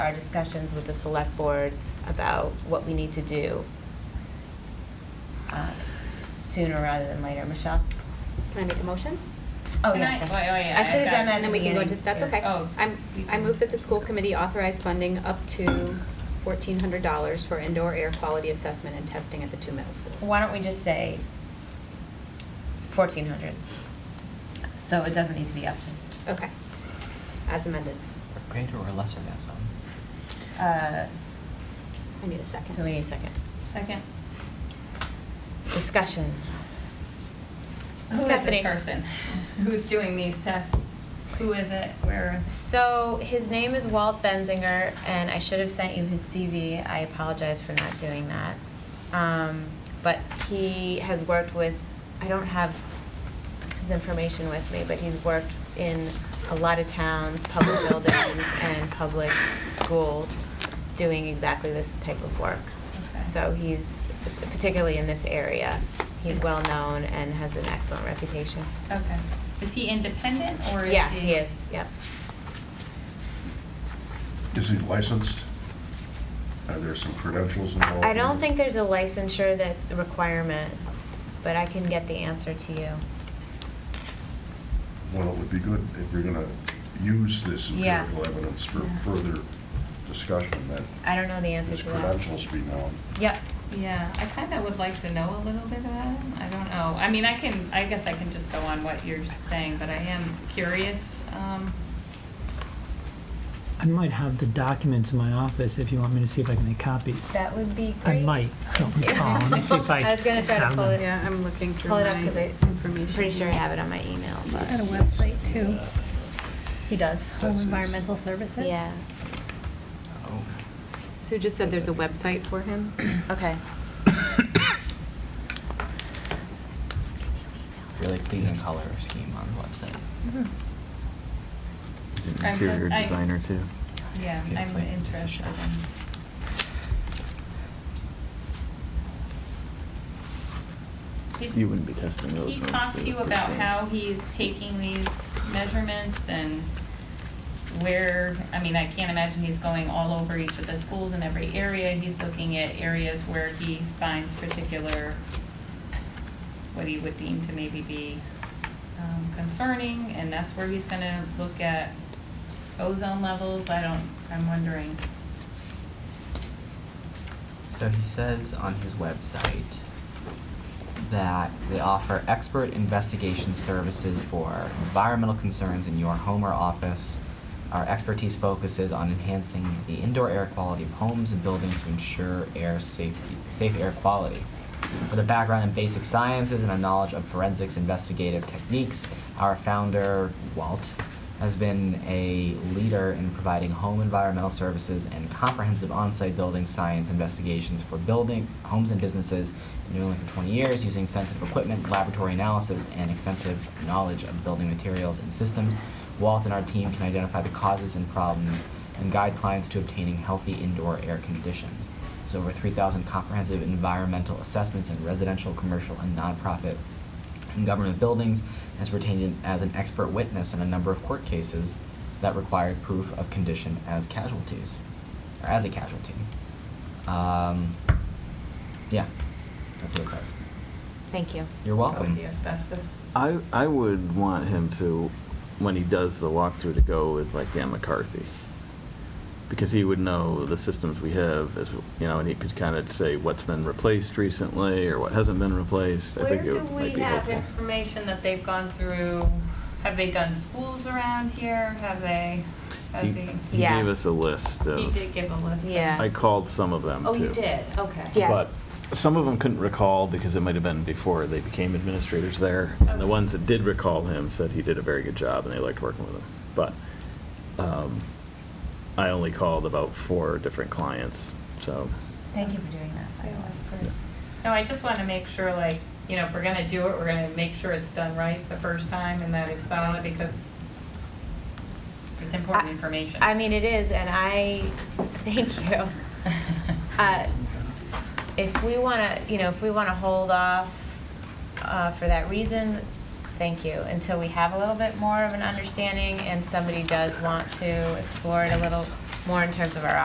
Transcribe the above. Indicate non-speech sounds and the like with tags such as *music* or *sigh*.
our discussions with the select board about what we need to do uh, sooner rather than later. Michelle? Can I make a motion? Oh, Can yeah. I- thanks. oh, yeah, I should have I've done got- that And then we can go into, that's okay. Oh. I'm, I move that the school committee authorize funding up to fourteen hundred dollars for indoor air quality assessment and testing at the two middle schools. Why don't we just say fourteen hundred? So it doesn't need to be up to, Okay. As amended. Greater or lesser than some? uh, I need a second. so we need a second. Second. Discussion. Who is Stephanie. this person? Who's doing these tests? Who is it? Where? So his name is Walt Benzinger, and I should have sent you his CV. I apologize for not doing that. Um, but he has worked with, I don't have his information with me, but he's worked in a lot of towns, public buildings, and public schools doing exactly this type of work. Okay. So he's, particularly in this area, he's well known and has an excellent reputation. Okay. Is he independent or is he? Yeah, he is, yep. Is he licensed? Are there some credentials involved? I don't think there's a licensure that's a requirement, but I can get the answer to you. Well, it would be good if we're going to use this Yeah. empirical evidence for Yeah. further discussion, that I don't know the answer his to that. credentials be known. Yep, Yeah, I kind of would like to know a little bit about him. I don't know. I mean, I can, I guess I can just go on what you're saying, but I am curious. um, I might have the documents in my office if you want me to see if I can make copies. that would be I great. might. I don't *laughs* recall. Let me see if I. I was gonna try to have pull them. it, I'm looking pull it up, because I'm pretty sure I have it on my email, He's got a but, website too, he does. Home Environmental Services. Yeah, Oh, Sue just said there's a website for him. *clears throat* okay. really pleasing color scheme on the website. Mm-hmm. He's an I'm just- interior I- designer too. Yeah, He looks I'm like he's a interested chef. in. Did- You wouldn't be testing those He ones, talked to they you look about pretty thin. how he's taking these measurements and where, I mean, I can't imagine he's going all over each of the schools in every area. He's looking at areas where he finds particular, what he would deem to maybe be um, concerning, and that's where he's gonna look at ozone levels. I don't, I'm wondering. So he says on his website that they offer expert investigation services for environmental concerns in your home or office. Our expertise focuses on enhancing the indoor air quality of homes and buildings to ensure air safety, safe air quality. With a background in basic sciences and a knowledge of forensics investigative techniques, our founder, Walt, has been a leader in providing home environmental services and comprehensive on-site building science investigations for building, homes and businesses in New England for 20 years using sensitive equipment, laboratory analysis, and extensive knowledge of building materials and systems. Walt and our team can identify the causes and problems and guide clients to obtaining healthy indoor air conditions. So over 3,000 comprehensive environmental assessments in residential, commercial, and nonprofit and government buildings has retained in- as an expert witness in a number of court cases that required proof of condition as casualties, or as a casualty. Um, yeah, that's what it says. Thank you. You're welcome. The asbestos. I, I would want him to, when he does the walkthrough, to go with like Dan McCarthy. Because he would know the systems we have as, you know, and he could kind of say what's been replaced recently or what hasn't been replaced. I Where think it do would- we might be have helpful. information that they've gone through? Have they done schools around here? Have they, has He he? he Yeah. gave us a list of. He did give a list. of- Yeah. I called some of them too. Oh, you did, okay. Yeah. But some of them couldn't recall because it might have been before they became administrators there. And the ones that did recall him said he did a very good job and they liked working with him. But um, I only called about four different clients, so. Thank you for doing that, by the way. yeah. No, I just want to make sure, like, you know, if we're gonna do it, we're gonna make sure it's done right the first time and that it's solid because it's important I- information. I mean, it is, and I, thank *laughs* you. Uh, If we want to, you know, if we want to hold off uh, for that reason, thank you, until we have a little bit more of an understanding and somebody does want to explore it a little more in terms of our